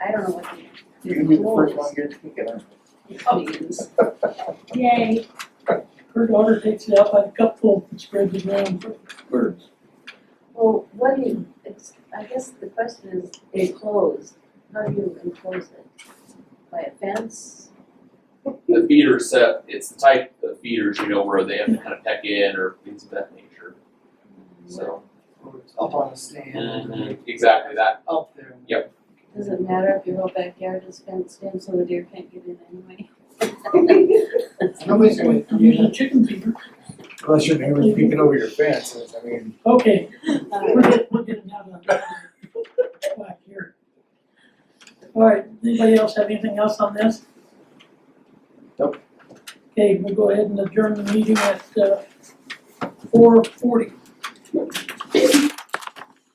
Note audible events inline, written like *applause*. don't know what You can be the first one here to think of it. the, is. Yay, Her daughter takes it out by the cupful and spreads it around. Birds. Well, what do you, it's, I guess the question is enclosed, how do you enclose it? By a fence? The feeder set, it's the type of feeders, you know, where they have to kind of peck in or things of that nature, so. Or it's Up on a stand, or Exactly that, up there. Yep. Does it matter if your whole backyard is fenced in so the deer can't get in anyway? Nobody's gonna, I'm using chicken feeder. Unless your neighbor's peeking over your fence, I mean, Okay, *laughs* we're *laughs* Uh, getting, we're getting out of whack here. All right, anybody else have anything else on this? Nope. Okay, we'll go ahead and adjourn the meeting at, uh, four forty.